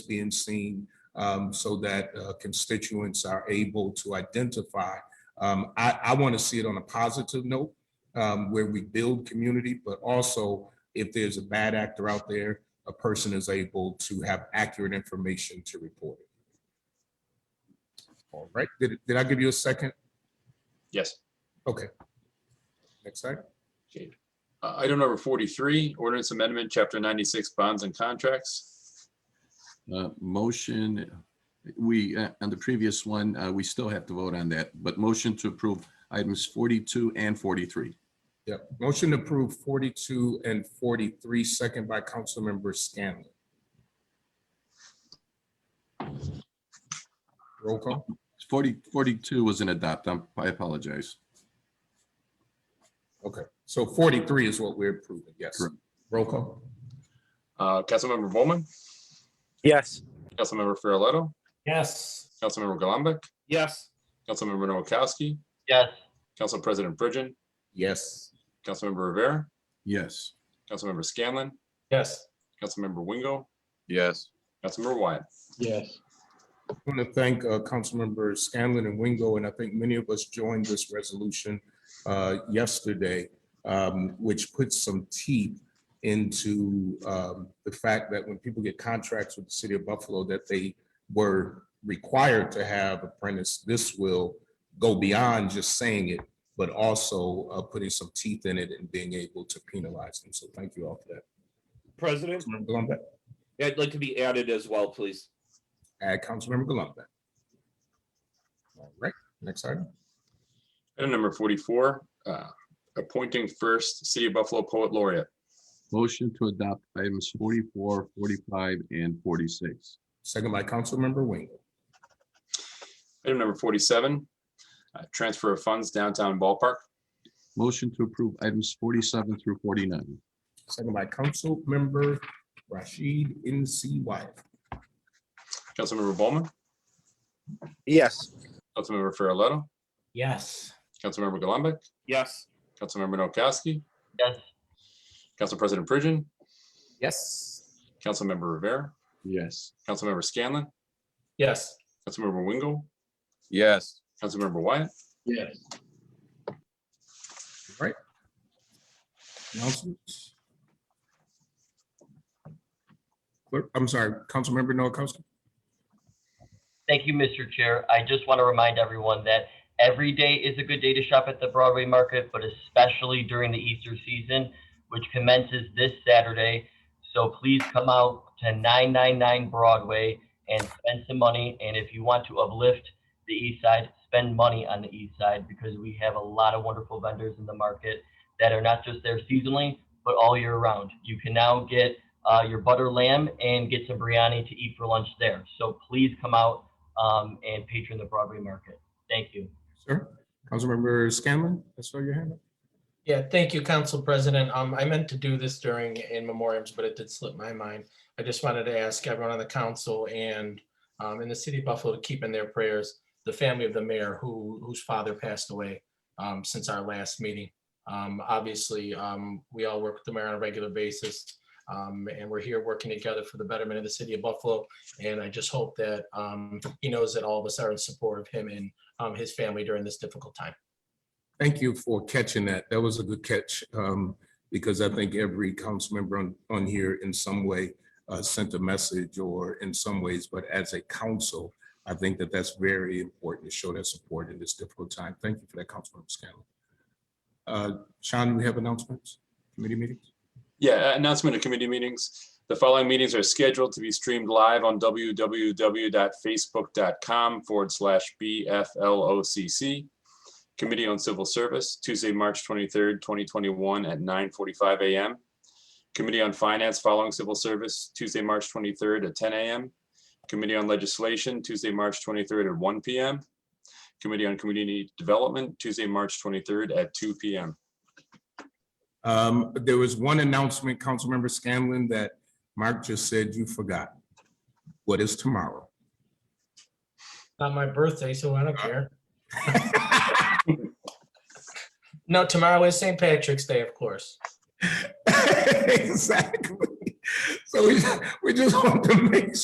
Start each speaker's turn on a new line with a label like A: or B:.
A: being seen um, so that uh, constituents are able to identify. Um, I, I want to see it on a positive note um, where we build community, but also if there's a bad actor out there, a person is able to have accurate information to report it. All right, did, did I give you a second?
B: Yes.
A: Next item.
B: Uh, Item number forty-three, ordinance amendment, chapter ninety-six, bonds and contracts.
C: Uh, Motion, we, uh, on the previous one, uh, we still have to vote on that, but motion to approve items 42 and 43.
A: Yep. Motion to approve forty-two and forty-three, second by Councilmember Scanlon. Roll call.
C: 40, 42 was an adopt, I'm- I apologize.
A: Okay, so forty-three is what we're approving, yes.
C: Correct.
A: Roll call.
B: Uh, Councilmember Bowman,
D: Yes.
B: Councilmember Farrelletto,
D: Yes.
B: Councilmember Gullumbeck,
D: Yes.
B: Councilmember Noakowski,
D: Yes.
B: Council President Pridgen,
A: Yes.
B: Councilmember Rivera,
C: Yes.
B: Councilmember Scanlon,
D: Yes.
B: Councilmember Wingo,
C: Yes.
B: Councilmember Wyatt.
D: Yes.
A: I want to thank uh, Councilmember Scanlon and Wingo, and I think many of us joined this resolution uh, yesterday, um, which puts some teeth into um, the fact that when people get contracts with the city of Buffalo, that they were required to have apprentice. This will go beyond just saying it, but also uh, putting some teeth in it and being able to penalize them. So thank you all for that.
E: President,
A: Councilmember Gullumbeck,
E: I'd like to be added as well, please.
A: add Councilmember Gullumbeck. All right, next item.
B: Item number forty-four, uh, appointing first City of Buffalo Poet Laureate.
C: Motion to adopt items 44, 45, and 46.
A: Second by Councilmember Wing.
B: Item number forty-seven, uh, transfer of funds downtown ballpark.
C: Motion to approve items 47 through 49.
A: Second by Councilmember Rashid N.C. Wyatt.
B: Councilmember Bowman,
D: Yes.
B: Councilmember Farrelletto,
D: Yes.
B: Councilmember Gullumbeck,
E: Yes.
B: Councilmember Noakowski.
D: Yes.
B: Council President Pridgen,
D: Yes.
B: Councilmember Rivera,
C: Yes.
B: Councilmember Scanlon,
D: Yes.
B: Councilmember Wingo,
C: Yes.
B: Councilmember Wyatt,
D: Yes.
A: Announcements? Clerk, I'm sorry, Councilmember Noakowski.
F: Thank you, Mr. Chair. I just want to remind everyone that every day is a good day to shop at the Broadway Market, but especially during the Easter season, which commences this Saturday. So please come out to 999 Broadway and spend some money. And if you want to uplift the east side, spend money on the east side because we have a lot of wonderful vendors in the market that are not just there seasonally, but all year round. You can now get uh, your butter lamb and get some biryani to eat for lunch there. So please come out um, and patron the Broadway market. Thank you.
A: Sir, Councilmember Scanlon, I saw your hand. up.
G: Yeah, thank you, Council President. Um, I meant to do this during in memoriams, but it did slip my mind. I just wanted to ask everyone on the council and um, in the city of Buffalo to keep in their prayers the family of the mayor who whose father passed away um, since our last meeting. Um, obviously, um, we all work with the mayor on a regular basis. um, and we're here working together for the betterment of the city of Buffalo. And I just hope that um, he knows that all of us are in support of him and um, his family during this difficult time.
A: Thank you for catching that. That was a good catch, um, because I think every council member on, on here in some way uh, sent a message or in some ways, but as a council, I think that that's very important to show that support in this difficult time. Thank you for that, Councilmember Scanlon. Uh, Sean, we have announcements, committee meetings?
B: Yeah, uh, announcement of committee meetings. The following meetings are scheduled to be streamed live on www.facebook.com forward slash BFLOCC. Committee on Civil Service, Tuesday, March 23rd, 2021 at 9:45 a.m. Committee on Finance following Civil Service, Tuesday, March 23rd at 10 a.m. Committee on Legislation, Tuesday, March 23rd at 1 p.m. Committee on Community Development, Tuesday, March 23rd at 2 p.m.
A: Um, there was one announcement, Councilmember Scanlon, that Mark just said you forgot. What is tomorrow?
G: Not my birthday, so I don't care. No, tomorrow is St. Patrick's Day, of course.
A: Exactly. So we, we just want to make